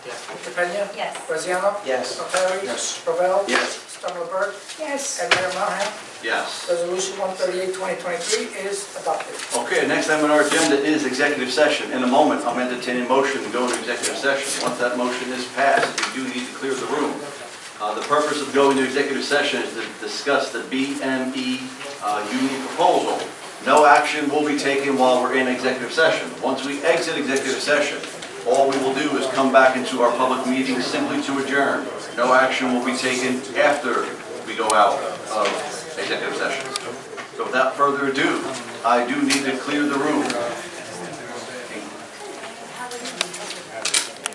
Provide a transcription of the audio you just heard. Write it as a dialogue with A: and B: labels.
A: DePena?
B: Yes.
A: Braziano?
C: Yes.
A: O'Terry?
D: Yes.
A: Robel?
D: Yes.
A: Stumblebird?
B: Yes.
A: And Mayor Melham?
D: Yes.
A: Resolution 138, 2023 is adopted.
D: Okay, next item on our agenda is executive session. In a moment, I'll entertain a motion to go into executive session. Once that motion is passed, we do need to clear the room. Uh, The purpose of going to executive session is to discuss the BME uh, union proposal. No action will be taken while we're in executive session. Once we exit executive session, all we will do is come back into our public meeting simply to adjourn. No action will be taken after we go out of executive session. So without further ado, I do need to clear the room.